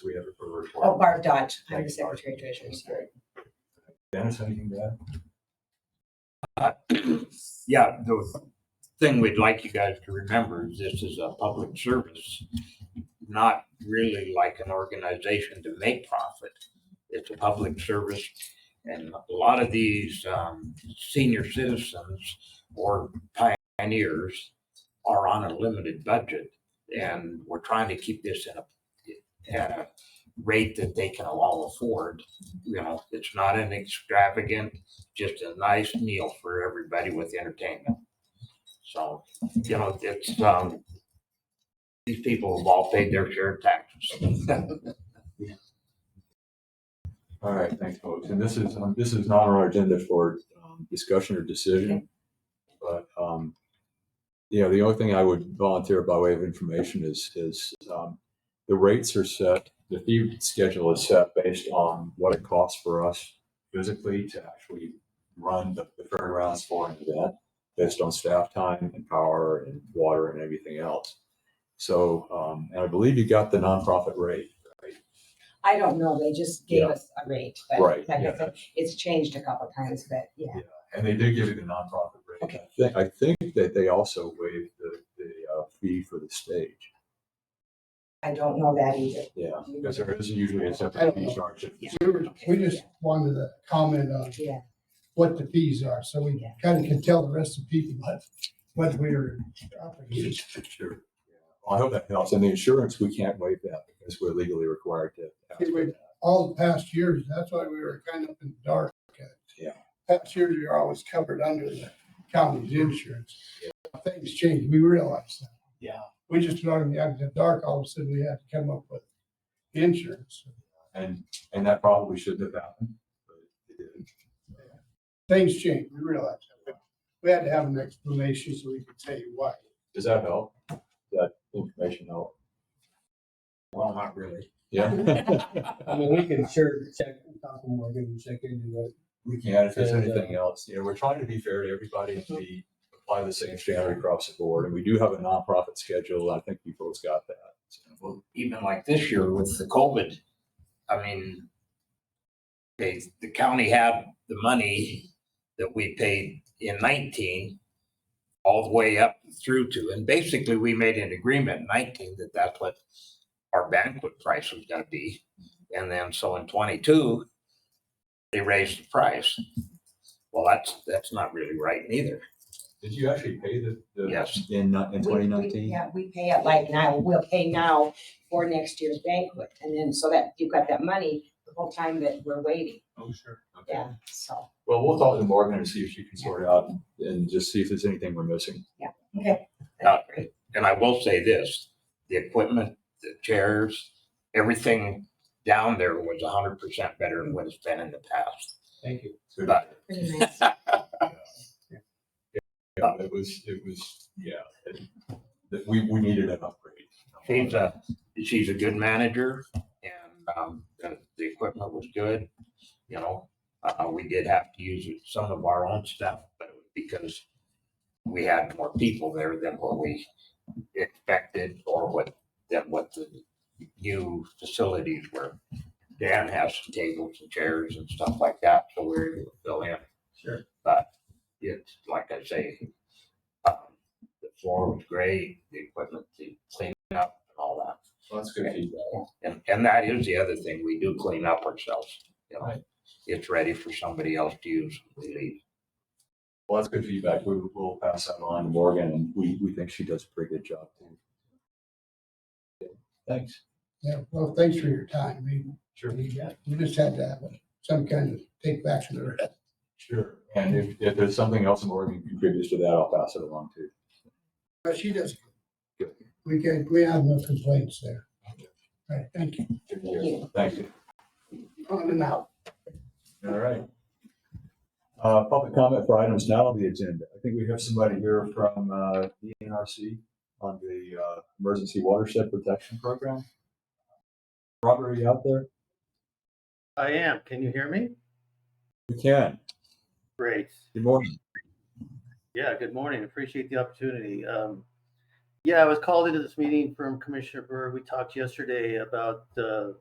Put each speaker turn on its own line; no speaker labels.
Do we have a report?
Oh, Barb Dodge, I'm
Thank you,
the
Barb.
Secretary Treasurer, sorry.
Dennis, anything to add?
Yeah, the thing we'd like you guys to remember is this is a public service, not really like an organization to make profit. It's a public service and a lot of these um, senior citizens or pioneers are on a limited budget. And we're trying to keep this at a, at a rate that they can all afford. You know, it's not an extravagant just a nice meal for everybody with entertainment. So, you know, it's, um, these people have all paid their share of taxes.
All right, thanks, folks. And this is, um, this is not on our agenda for um, discussion or decision. But, um, you know, the only thing I would volunteer by way of information is, is, um, the rates are set, the fee schedule is set based on what it costs for us physically to actually run the the fairgrounds for an event, based on staff time and power and water and everything else. So, um, and I believe you got the nonprofit rate,
I don't know, they just gave
Yeah.
us a rate, but
Right,
like I
yeah.
said, it's changed a couple times, but yeah.
And they do give you the nonprofit rate.
Okay.
I think, I think that they also waive the, the uh, fee for the stage.
I don't know that either.
Yeah, because there is usually a
I
separate
don't
fee
know.
charge. if-
Yeah.
We just wanted to comment on
Yeah,
what the fees are, so we
Yeah.
kind of can tell the rest of the people what, what we're. offering.
Sure. Yeah. Well, I hope that helps. And the insurance, we can't waive that because we're legally required to. ask for that.
All the past years, that's why we were kind of in the dark.
Yeah.
Past years, we were always covered under the county's insurance.
Yeah.
Things changed, we realized that. Yeah. We just learned out in the dark, all of a sudden we had to come up with insurance.
And, and that probably shouldn't have happened. but it did.
Things changed, we realized that. We had to have an explanation so we could tell you why.
Does that help? Does That information help?
Well, not really.
Yeah.
I mean, we can sure check, talk to Morgan and check into
We can, if there's
And, uh,
anything else, you know, we're trying to be fair to everybody and be, apply the same standard across the board. And we do have a nonprofit schedule. I think you folks got that. So,
Well, Even like this year with the COVID, I mean, they, the county had the money that we paid in nineteen all the way up through to, and basically we made an agreement in nineteen that that's what our banquet price was gonna be. And then so in twenty-two, they raised the price. Well, that's, that's not really right neither.
Did you actually pay the? the-
Yes.
In, uh, in
We- we-
twenty nineteen?
Yeah, we pay it like now, we'll pay now for next year's banquet, and then so that you've got that money the whole time that we're waiting,
Oh, sure. Okay.
yeah, so,
Well, we'll talk to Morgan and see if she can sort out and just see if there's anything we're missing.
that's great.
And I will say this, the equipment, the chairs, everything down there was hundred percent better than what it's been in the past.
Thank you.
So,
Right.
Pretty nice.
yeah, It was, it was, yeah. it- That we, we needed an upgrade.
She's a, she's a good manager and, um, the, the equipment was good. You know, uh, we did have to use some of our own stuff, but it was because we had more people there than what we expected or what, than what the new facilities were. Dan has some tables and chairs and stuff like that, so we we're able to fill in.
Sure.
But it's, like I say, um, the floor was great, the equipment, the cleanup and all that.
Well, That's good feedback.
And, and that is the other thing, we do clean up ourselves, you know?
Right.
It's ready for somebody else to use, when we leave.
Well, that's good feedback. We will pass that on to Morgan and we, we think she does a pretty good job. too. Thanks.
Yeah, well, thanks for your time. We,
Sure.
we just had to have some kind of take back to the rest.
Sure. And if, if there's something else Morgan contributes to that, I'll pass it along too.
But she does. good. We can, we have no complaints there. All right, thank you.
Thank you.
Thank you.
On and out.
All right. Uh, public comment for items not on the agenda. I think we have somebody here from, uh, the NRC on the, uh, Emergency Watershed Protection Program. Robert, are you out there?
I am. Can you hear me?
We can.
Great.
Good morning.
Yeah, good morning. Appreciate the opportunity. Um, yeah, I was called into this meeting from Commissioner Burr. We talked yesterday about uh,